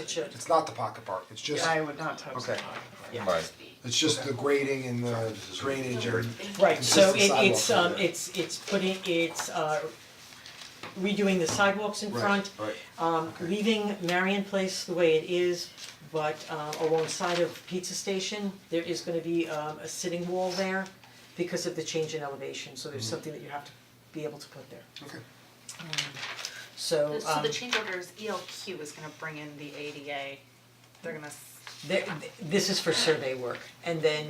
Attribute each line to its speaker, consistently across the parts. Speaker 1: touch it.
Speaker 2: It's not the pocket park, it's just,
Speaker 1: I would not touch
Speaker 2: Okay.
Speaker 1: that.
Speaker 3: Right.
Speaker 2: it's just the grading and the drainage or
Speaker 1: Right, so it
Speaker 2: consistent
Speaker 1: it's
Speaker 2: sidewalks
Speaker 1: um
Speaker 2: over there.
Speaker 1: it's it's putting it's uh redoing the sidewalks in
Speaker 2: Right,
Speaker 1: front.
Speaker 2: right.
Speaker 1: Um leaving Marion Place the way it is, but uh alongside of Pizza Station, there is gonna be um a sitting wall there because of the change in elevation, so
Speaker 2: Mm-hmm.
Speaker 1: there's something that you have to be able to put there.
Speaker 2: Okay.
Speaker 1: So
Speaker 4: So
Speaker 1: um
Speaker 4: the change orders, ELQ is gonna bring in the ADA, they're gonna, s-
Speaker 1: there this is for survey work and then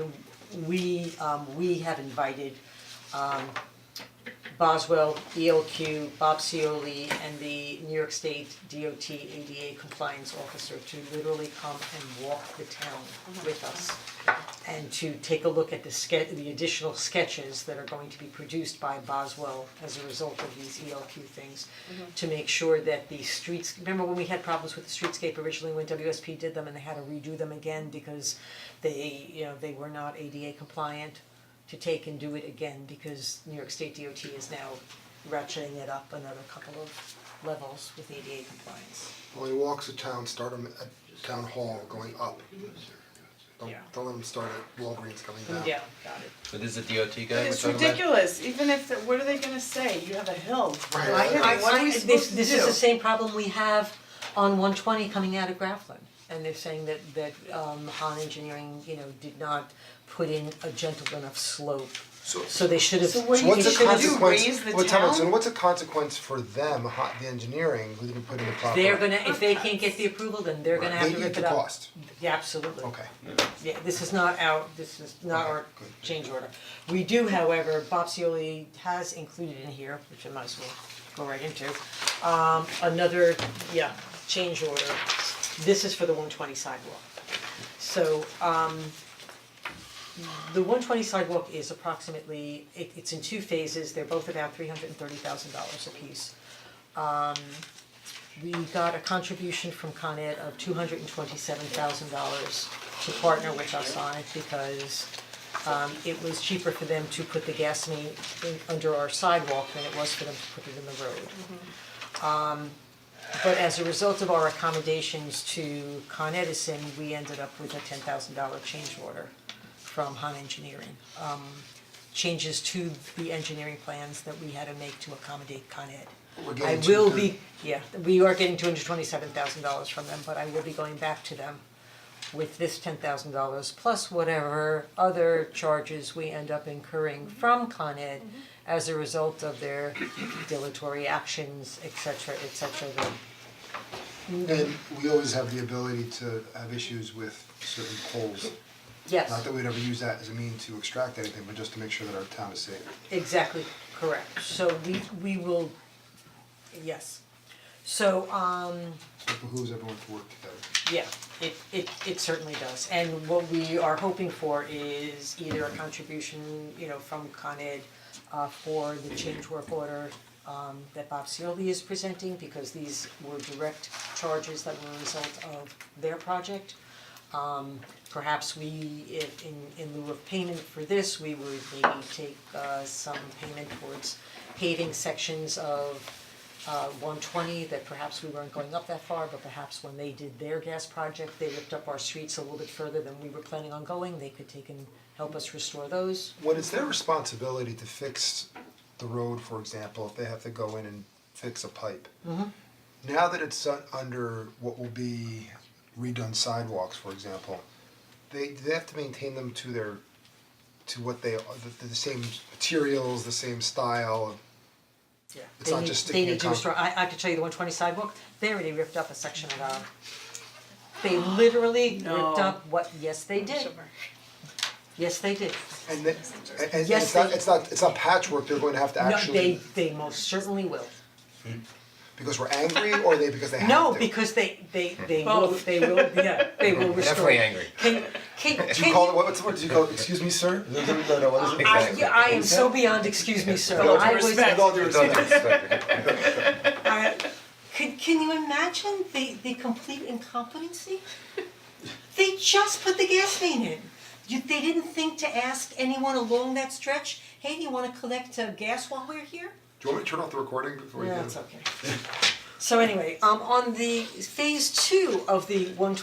Speaker 1: we um we have invited um Boswell, ELQ, Bob Cioli and the New York State DOT ADA compliance officer to literally come and walk the town with us and to take a look at the ske- the additional sketches that are going to be produced by Boswell as a result of these ELQ things. To make sure that the streets, remember when we had problems with the streetscape originally when WSP did them and they had to redo them again because they, you know, they were not ADA compliant? To take and do it again because New York State DOT is now ratcheting it up another couple of levels with ADA compliance.
Speaker 2: Well, he walks the town, start him at town hall going up. Don't
Speaker 1: Yeah.
Speaker 2: don't let him start at Walgreens coming down.
Speaker 1: got it.
Speaker 3: But this is a DOT guy we're
Speaker 5: It's
Speaker 3: talking about?
Speaker 5: ridiculous, even if, the- what are they gonna say, you have a hill,
Speaker 2: Right.
Speaker 5: Like,
Speaker 2: I-
Speaker 5: what are we
Speaker 1: This-
Speaker 5: supposed to do?
Speaker 1: This is the same problem we have on one twenty coming out of Grafflin. And they're saying that that um Han Engineering, you know, did not put in a gentle enough slope.
Speaker 2: So-
Speaker 1: they should have,
Speaker 5: So what do
Speaker 2: So
Speaker 5: you
Speaker 2: what's
Speaker 1: they
Speaker 2: a
Speaker 5: should
Speaker 1: should
Speaker 5: do?
Speaker 1: have,
Speaker 2: consequence,
Speaker 5: raise the
Speaker 2: what time out, so
Speaker 5: town?
Speaker 2: what's a consequence for them, hot, the engineering, who didn't put in the proper?
Speaker 1: they're gonna, if they can't get the approval, then they're gonna have to
Speaker 2: They eat
Speaker 1: rip
Speaker 2: the
Speaker 1: it up.
Speaker 2: cost,
Speaker 1: Yeah, absolutely.
Speaker 2: okay.
Speaker 1: Yeah, this is not our, this is not our change order. We do, however, Bob Cioli has included in here, which I might as well go right into, um, another, yeah, change order. This is for the one twenty sidewalk. So, um, the one twenty sidewalk is approximately, it, it's in two phases, they're both about three hundred and thirty thousand dollars apiece. We got a contribution from Con Ed of two hundred and twenty-seven thousand dollars to partner with us on it because um it was cheaper for them to put the gas main in under our sidewalk than it was for them to put it in the road. Um but as a result of our accommodations to Con Edison, we ended up with a ten thousand dollar change order from Han Engineering. Um changes to the engineering plans that we had to make to accommodate Con Ed.
Speaker 2: We're
Speaker 1: I
Speaker 2: getting
Speaker 1: will
Speaker 2: to
Speaker 1: be, yeah, we are getting two hundred twenty-seven thousand dollars from them, but I will be going back to them with this ten thousand dollars plus whatever other charges we end up incurring from Con Ed as a result of their dilatory actions, et cetera, et cetera, that
Speaker 2: And we always have the ability to have issues with certain poles.
Speaker 1: yes.
Speaker 2: Not that we'd ever use that as a mean to extract anything, but just to make sure that our town is safe.
Speaker 1: Exactly, correct, so we we will, yes. So um
Speaker 2: It behooves everyone to work together.
Speaker 1: Yeah, it it it certainly does, and what we are hoping for is either a contribution, you know, from Con Ed uh for the change work order um that Bob Cioli is presenting, because these were direct charges that were a result of their project. Um perhaps we, if in in lieu of payment for this, we would maybe take uh some payment towards paving sections of uh one twenty, that perhaps we weren't going up that far, but perhaps when they did their gas project, they ripped up our streets a little bit further than we were planning on going, they could take and help us restore those.
Speaker 2: When it's their responsibility to fix the road, for example, if they have to go in and fix a pipe.
Speaker 1: Mm-hmm.
Speaker 2: Now that it's un- under what will be redone sidewalks, for example, they, they have to maintain them to their, to what they, the, the same materials, the same style.
Speaker 1: Yeah.
Speaker 2: It's not just sticking
Speaker 1: They
Speaker 2: a
Speaker 1: need, they need to
Speaker 2: con-
Speaker 1: restore, I I could show you the one twenty sidewalk, they already ripped up a section of our, they literally ripped
Speaker 5: No.
Speaker 1: up what, yes, they did,
Speaker 4: sure.
Speaker 1: yes, they did.
Speaker 2: And then, and, and
Speaker 1: Yes,
Speaker 2: it's not,
Speaker 1: they-
Speaker 2: it's not, it's not patchwork, they're going to have to
Speaker 1: No, they
Speaker 2: actually,
Speaker 1: they most certainly will.
Speaker 2: because we're angry or they, because they have to.
Speaker 1: No, because they they they will,
Speaker 5: Both.
Speaker 1: they will, yeah, they will restore.
Speaker 3: Definitely angry.
Speaker 1: Can can can
Speaker 2: Do you call it, what- what's, what do you call it, excuse me, sir? No, no, no, what is it?
Speaker 1: I
Speaker 3: Exactly.
Speaker 1: yeah, I am so beyond, excuse me, sir,
Speaker 5: With all due
Speaker 1: I was,
Speaker 5: respect.
Speaker 2: With all due respect.
Speaker 1: I, can can you imagine the the complete incompetency? They just put the gas main in. You, they didn't think to ask anyone along that stretch, hey, do you wanna collect uh gas while we're here?
Speaker 2: Do you want me to turn off the recording before you do?
Speaker 1: No, it's okay. So anyway, um on the phase two of the one